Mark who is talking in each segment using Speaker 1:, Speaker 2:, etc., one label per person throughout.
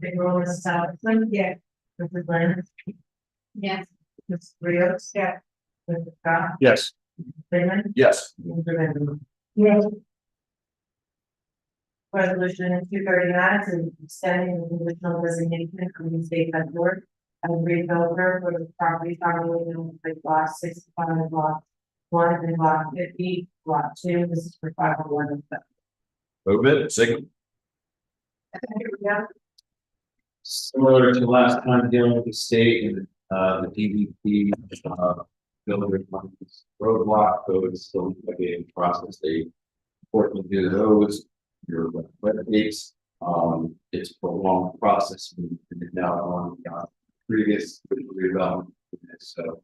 Speaker 1: Big Roller South Lynn. Mrs. Lynn. Yes. Mrs. Rios. Yeah. Mrs. Scott.
Speaker 2: Yes.
Speaker 1: Freeman.
Speaker 2: Yes.
Speaker 1: Mr. Benjamin. Yes. Resolution two thirty nine to extending the conditional designation of the state head board. As redeveloper for the property following in the block sixty five block. One and block fifty, block two, this is for five oh one.
Speaker 2: Move it, second.
Speaker 1: Yeah.
Speaker 3: Similar to last time dealing with the state and, uh, the DVP, uh, builder funds roadblock, so it's still a process. They unfortunately do those, your web dates, um, it's a long process. We've been now on, uh, previous redevelopment, so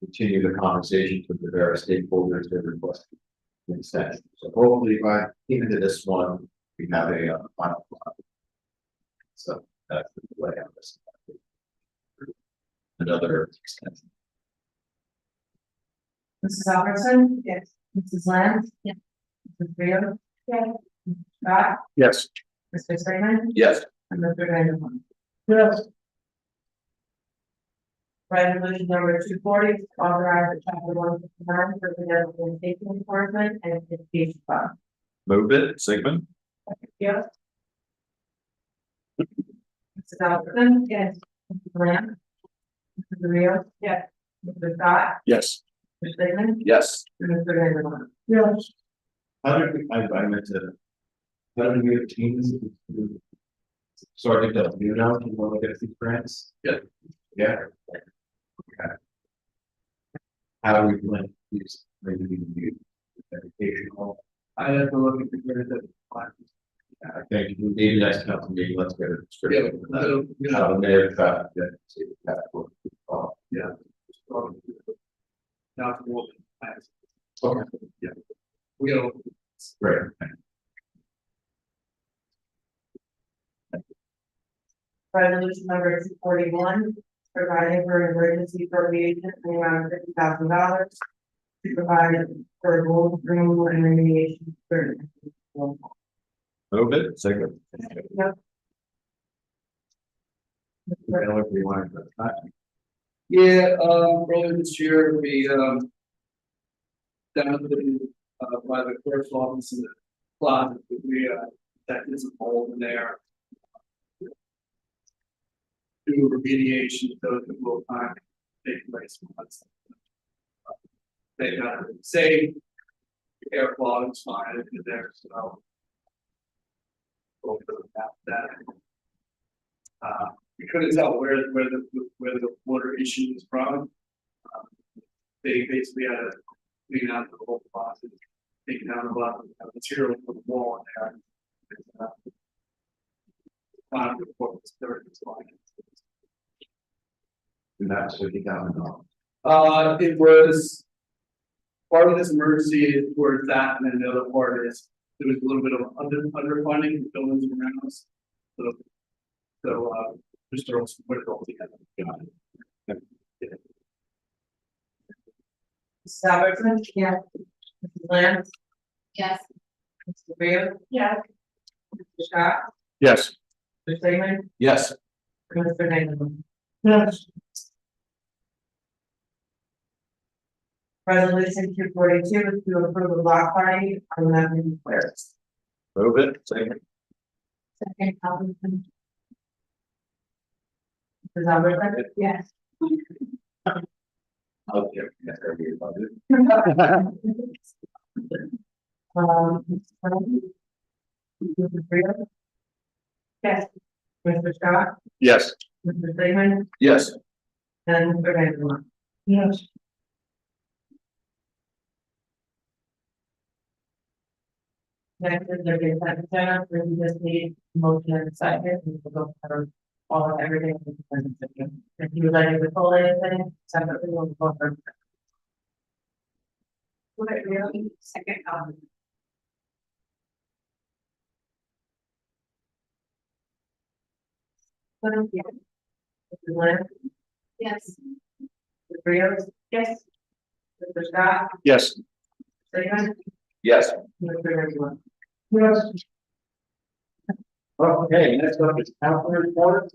Speaker 3: continue the conversations with the various stakeholders that request consent. So hopefully by the end of this one, we have a, uh, final. product. So. That's the way I was. Another extension.
Speaker 1: Mrs. Albertson? Yes. Mrs. Lance? Yes. Mrs. Rio? Yes. Scott?
Speaker 2: Yes.
Speaker 1: Mr. Freeman?
Speaker 2: Yes.
Speaker 1: And Mr. Vanderpump.
Speaker 2: Yes.
Speaker 1: Resolution number two forty, authorize the chapter one fifty nine for the Development Safety Enforcement and Education Fund.
Speaker 2: Move it, Sigmund.
Speaker 1: Yes. Mrs. Albertson? Yes. Mrs. Lance? Mrs. Rio? Yes. Mr. Scott?
Speaker 2: Yes.
Speaker 1: Mr. Freeman?
Speaker 2: Yes.
Speaker 1: And Mr. Vanderpump. Yes.
Speaker 3: How did we, I, I meant to. How did we obtain this? Sorry, did that, you know, you want to get these grants?
Speaker 2: Yeah.
Speaker 3: Yeah. Okay. How do we plan these, maybe we can do educational? I have to look at the grant that. I think maybe that's not the meeting, let's get a description. of that. How they have traffic, yeah, see, that's what we call, yeah.
Speaker 4: not more than five.
Speaker 3: Okay, yeah,
Speaker 4: We don't,
Speaker 3: great.
Speaker 1: Resolution number two forty-one, providing for emergency appropriation in the amount of fifty thousand dollars. To provide for gold removal and remediation. for-
Speaker 2: Move it, Sigmund.
Speaker 1: Yep.
Speaker 3: I don't know if we want to, but I-
Speaker 4: yeah, um, earlier this year, we, um. Down to the, uh, by the clerk's office in the closet, we, uh, that is a hole in there. Do remediation, those that will time, take place once. They got it saved. The Air quality is fine in there, so. Over that. Uh, we couldn't tell where, where the, where the water issue was from. Um, They basically had to clean out the whole closet, take down a lot of the material from the wall in there. and, uh, Find the report was thirty, it's like.
Speaker 3: and that's fifty thousand dollars.
Speaker 4: Uh, it was. Part of this emergency is towards that, and then the other part is, there was a little bit of under, underfunding, in buildings and grounds. So. So, uh, just throw some, put it all together.
Speaker 3: Got it.
Speaker 1: Mrs. Albertson? Yeah. Mrs. Lance? Yes. Mr. Rio? Yeah. Mr. Scott?
Speaker 2: Yes.
Speaker 1: Mr. Freeman?
Speaker 2: Yes.
Speaker 1: and Mr. Vanderpump.
Speaker 4: Yes.
Speaker 1: Resolution two forty-two is to approve a block party on eleven squares.
Speaker 2: Move it, Sigmund.
Speaker 1: Second, Albertson. Mrs. Albertson? Yes.
Speaker 3: Out there, that's gonna be a budget.
Speaker 1: Um. Mrs. Brown? Mrs. Freeman? Yes. Mr. Scott,
Speaker 2: Yes.
Speaker 1: Mr. Freeman,
Speaker 2: Yes.
Speaker 1: and Mr. Vandermark. Yes. Next is the consent agenda, where we just need motion and second, and we'll go through all of everything. in the consent agenda. If you would like to withhold anything, separately, we'll go through. Would it really second, um, Mrs. Lynn? Yes. Mr. Rios? Yes. Mr. Scott?
Speaker 2: Yes.
Speaker 1: Freeman?
Speaker 2: Yes.
Speaker 1: Mr. Rizzo?
Speaker 4: Yes. Okay, next up is council reports.